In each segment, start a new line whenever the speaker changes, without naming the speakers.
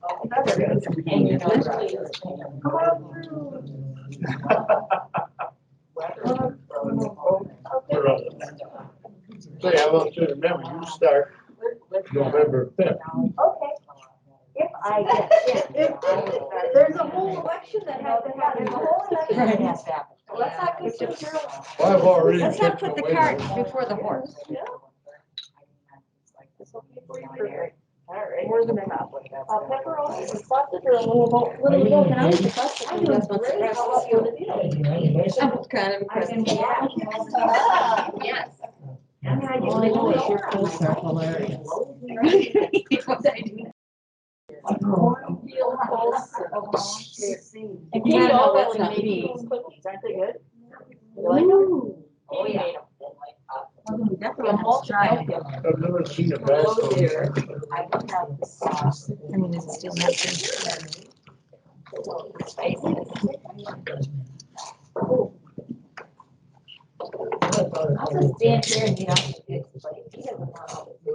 And you're literally just saying, "Come on through."
We're on it. So yeah, I want you to remember, you start November fifth.
Okay, if I get,
If, if, there's a whole election that has to happen, the whole election.
Yes, that-
Let's not get too careless.
Well, I've already.
Let's not put
kicked
the
away.
cart before the horse.
More than enough.
uh, pepperoni and sausage or a little, little, little now with the sausage.
I'm doing great. How about you?
I'm kind of impressed.
I've been- yeah.
Yes.
I mean, I get
All I know is your
really
posts are hilarious.
Real close.
And
Yeah,
you
no,
all
that's
really
not
made
me.
these cookies, aren't they good? You like them?
Ooh,
Oh, yeah.
Definitely almost dry.
I've never seen a basket.
I don't have the sauce.
I mean, it's still not good.
I'll just stand here and you don't have to do it, but he doesn't want all this.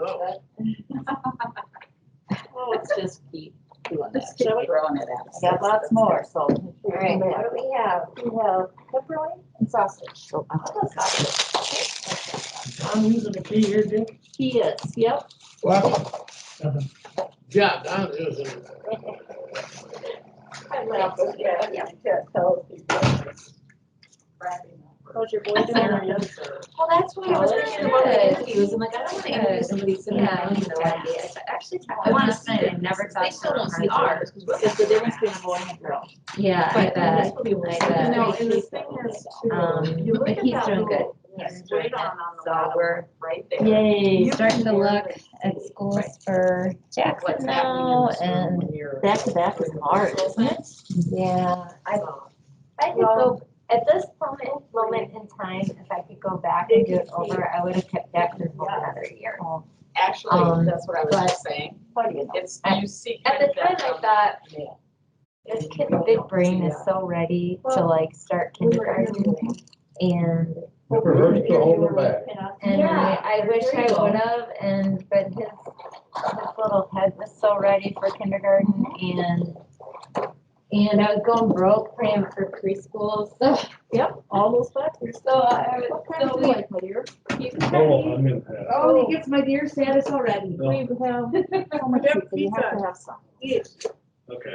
Oh, it's just keep doing that.
keep
Shall we?
throwing it at us.
Got lots more, so. All
right.
What do we have? We have pepperoni and sausage.
uh,
I'm using the key here, Dick.
He is, yep.
Well, yeah, I'm using it.
I laugh, but yeah, you can't tell people.
How's your boy doing?
Well, that's why I was thinking about the interviews. I'm like, I don't want to interview somebody sitting
Yeah,
down. Actually, I
I
want to
wanna
spend
spend it, never
They
talk
still
about
don't
our
see ours.
hearts.
It's the difference between a boy and a girl.
Yeah, I
But
bet.
this will be like
I
that.
bet.
You know, and the thing is too,
Um,
you look
but
at
he's
that
doing
little-
good.
Yes,
He's doing
right
good.
on, on the
So
bottom,
we're,
right there.
yay,
You
starting to
can
look
really
at schools for Jackson
What's happening in
now
this room
and,
when you're-
Back to back is hard, isn't it?
yeah.
I
I could go, at this moment, moment in time, if I could go back and do it over, I would have kept that group for another year.
Actually,
Um,
that's what I was just saying. It's, you see.
At the time,
that
I
from-
thought, this kid's big brain is so ready to like start kindergarten and,
Never hurts to hold them back.
and I, I wish I would have, and, but his, his little head was so ready for kindergarten and, and I was going broke for him for preschool, so,
Yep, all those factors.
so I was,
What kind
so
of
we,
like, my dear?
you could kind of
Oh, I'm in that.
Oh,
he gets my dear status already. We have so much
Yep,
pizza. You have
pizza.
to have some.
Okay.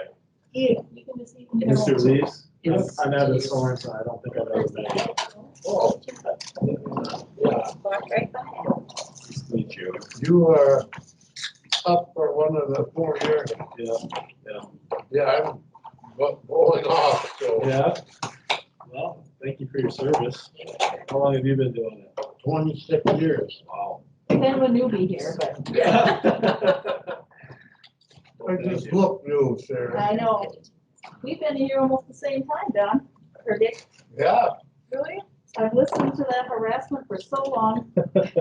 You can just eat.
Mr. Reeves?
Yes.
I'm out of Sorenson, I don't think I've ever met
Oh. uh, Yeah,
Right.
you. Meet you.
you are up for one of the four years.
Yeah,
Yeah, I'm bo- bowling off, so
yeah. Well, thank you for your service. How long have you been doing it?
twenty-six years.
Wow.
Then when you be here, but.
I just look new, Sarah.
I know. We've been here almost the same time, Don, or Dick,
Yeah,
really? I've listened to that harassment for so long.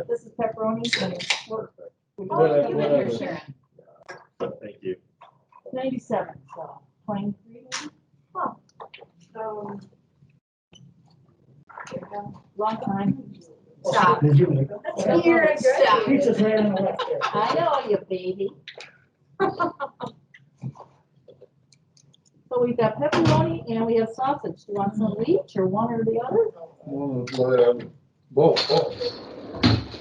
This is pepperoni and work. How long have Oh, you been here, Sharon?
Thank you.
Ninety-seven, so twenty-three. Huh. So. yeah, Long time.
Stop.
Here,
Stop.
Pizza's right on the left there.
I know you, baby. So we've got pepperoni and we have sausage. Do you want some of each or one or the other?
um, both, both.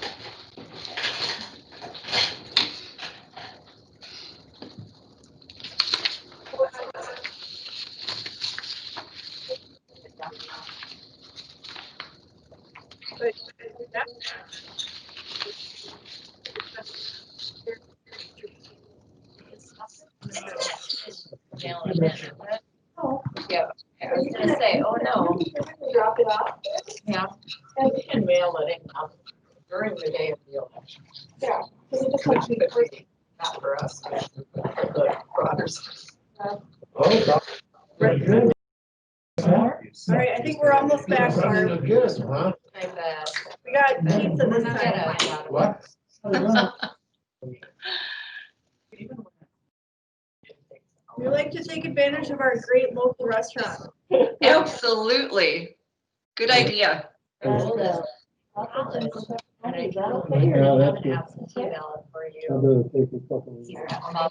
Oh.
Yeah, I was gonna say, oh no.
Drop it off.
Yeah.
And you can mail it in um, during the day of the election. Yeah. Cause it just makes it free, not for us, but for others.
Oh, God.
Right.
Good.
All right, I think we're almost back,
Running
Barb.
again, huh?
I bet.
We got pizza
We're
this
not
time.
gonna find out.
What?
We like to take advantage of our great local restaurant.
Absolutely. Good idea.
That's
And I-
Is that okay?
Yeah,
or do you
that's
have an
good.
appetite?
Email it for you.
I'm gonna take a couple of.
Here, I'll